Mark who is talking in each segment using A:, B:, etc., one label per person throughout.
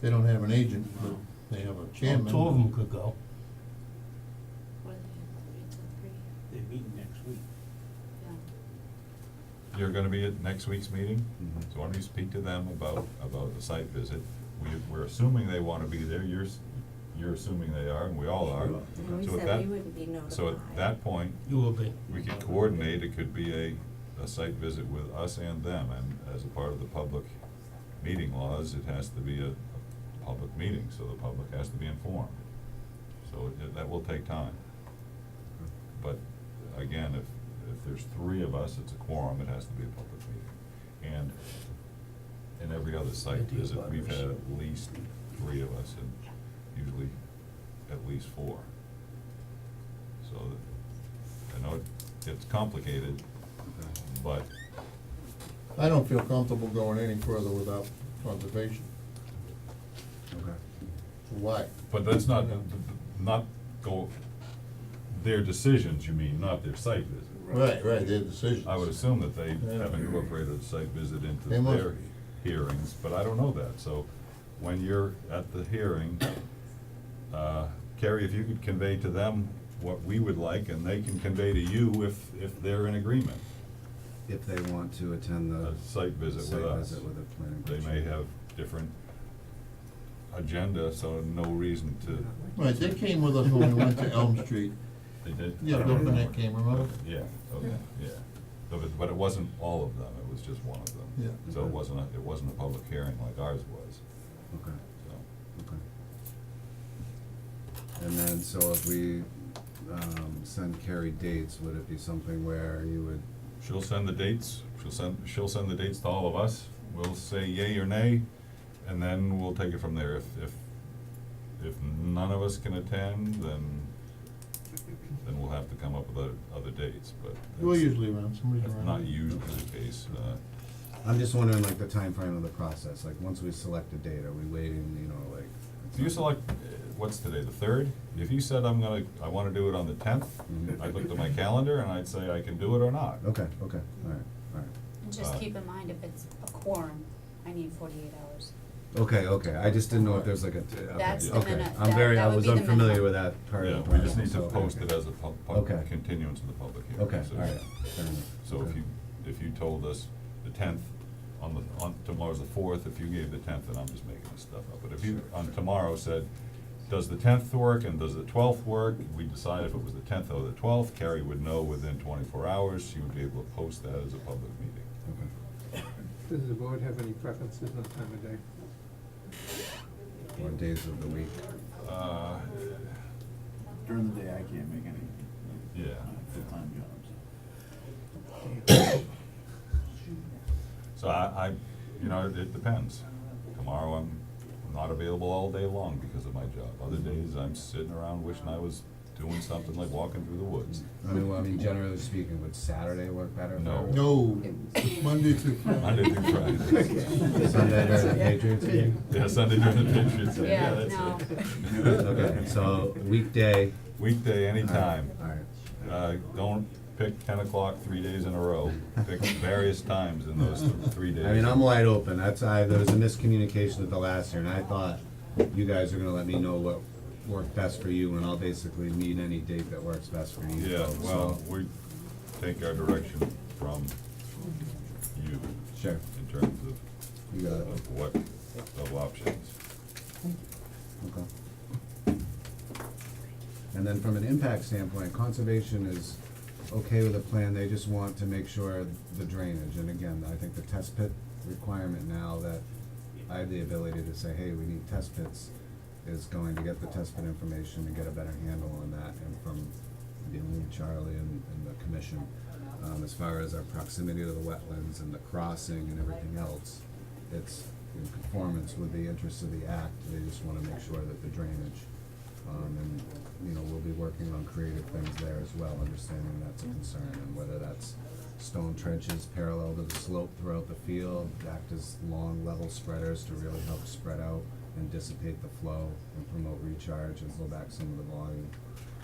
A: They don't have an agent, but they have a chairman.
B: Two of them could go.
C: What are they, three till three?
D: They're meeting next week.
C: Yeah.
E: You're gonna be at next week's meeting? So why don't you speak to them about, about the site visit? We, we're assuming they wanna be there, you're, s- you're assuming they are, and we all are.
F: Sure.
C: And we
E: So at
C: said
E: that-
C: we wouldn't be notified.
E: So at that point,
B: You will be.
E: we could coordinate, it could be a, a site visit with us and them, and as a part of the public meeting laws, it has to be a, a public meeting, so the public has to be informed. So it, that will take time. But again, if, if there's three of us, it's a quorum, it has to be a public meeting. And in every other site
B: Idea
E: visit, we've had
B: butters.
E: at least three of us and usually at least four. So that- I know it gets complicated, but
A: I don't feel comfortable going any further without conservation.
F: Okay.
A: Why?
E: But that's not, not go, their decisions, you mean, not their site visit.
A: Right, right, their decisions.
E: I would assume that they
A: Yeah.
E: have incorporated a site visit into
A: They must.
E: their hearings, but I don't know that, so when you're at the hearing, uh, Carrie, if you could convey to them what we would like, and they can convey to you if, if they're in agreement,
F: If they want to attend
E: a
F: the
E: site visit with
F: site
E: us.
F: visit with the planning
E: They
F: commission.
E: may have different agenda, so no reason to,
A: Right, they came with us when we went to Elm Street.
E: they did.
A: Yeah,
E: I don't
A: Bill Burnett
E: remember.
A: came, remember?
E: Yeah, okay, yeah. But it, but it wasn't all of them, it was just one of them.
A: Yeah.
E: So it wasn't, a- it wasn't a public hearing like ours was,
F: Okay,
E: so.
F: okay. And then, so if we, um, send Carrie dates, would it be something where you would,
E: She'll send the dates, she'll send, she'll send the dates to all of us, we'll say yay or nay, and then we'll take it from there. If, if, if none of us can attend, then, then we'll have to come up with other, other dates, but.
A: We're
E: that's-
A: usually around, somebody's
E: That's
A: around.
E: not usually the case, uh,
F: I'm just wondering like the time frame of the process, like once we select a date, are we waiting, you know, like?
E: If you select, uh, what's today, the third? If you said I'm gonna, I wanna do it on the tenth,
F: Mhm.
E: I'd look at my calendar and I'd say I can do it or not.
F: Okay, okay, alright, alright.
C: And just
E: Uh,
C: keep in mind, if it's a quorum, I need forty-eight hours.
F: Okay, okay, I just didn't know if there's like a, okay,
C: That's the
F: okay,
C: minute-
F: I'm
C: that-
F: very,
C: that
F: I
C: would
F: was
C: be the
F: unfamiliar
C: minimum.
F: with that part
E: Yeah,
F: of the
E: we just
F: process,
E: need to
F: so, okay,
E: post it
F: okay.
E: as a pub, pub,
F: Okay.
E: continuance of the public hearing.
F: Okay,
E: so-
F: alright, fair enough.
E: So if
F: Okay.
E: you, if you told us the tenth, on the, on, tomorrow's the fourth, if you gave the tenth, then I'm just making this stuff up. But if you,
F: Sure,
E: on
F: sure.
E: tomorrow said, does the tenth work and does the twelfth work? We decide if it was the tenth or the twelfth, Carrie would know within twenty-four hours, she would be able to post that as a public meeting.
F: Okay.
G: Does the board have any preferences on time of day?
F: Or days of the week.
E: Uh,
H: During the day, I can't make any.
E: Yeah.
H: I have Full-time jobs.
E: So I, I, you know, it depends. Tomorrow I'm not available all day long because of my job. Other days I'm sitting around wishing I was doing something like walking through the woods.
F: I mean, well, I mean, generally speaking, would Saturday work better? for
E: No.
F: everyone?
A: No, Monday through Friday.
E: Monday through Friday.
F: Sunday during the Patriots game?
E: Yeah, Sunday during the Patriots, game.
C: Yeah,
E: yeah, that's it.
C: no.
F: Okay, so weekday.
E: Weekday, anytime.
F: Alright,
E: Uh, don't pick ten o'clock three days in a row. Pick various times in those th- three days.
F: I mean, I'm wide open, that's, I, there was a miscommunication at the last year, and I thought you guys were gonna let me know what worked best for you, and I'll basically meet any date that works best for you
E: Yeah,
F: folks, so-
E: well, we take our direction from you
F: Sure,
E: in terms of
F: you got it,
E: of what, of options.
F: okay. And then from an impact standpoint, conservation is okay with the plan, they just want to make sure the drainage, and again, I think the test pit requirement now that I have the ability to say, hey, we need test pits, is going to get the test pit information and get a better handle on that, and from dealing with Charlie and, and the commission, um, as far as our proximity to the wetlands and the crossing and everything else, it's in conformance with the interests of the act, they just wanna make sure that the drainage um, and, you know, we'll be working on creative things there as well, understanding that's a concern, and whether that's stone trenches parallel to the slope throughout the field, act as long level spreaders to really help spread out and dissipate the flow and promote recharge and pull back some of the volume.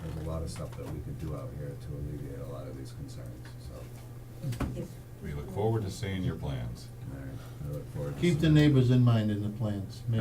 F: There's a lot of stuff that we could do out here to alleviate a lot of these concerns, so,
E: We look forward to seeing your plans.
F: all right, I look forward to
A: Keep the
F: seeing-
A: neighbors in mind in the plans, maybe.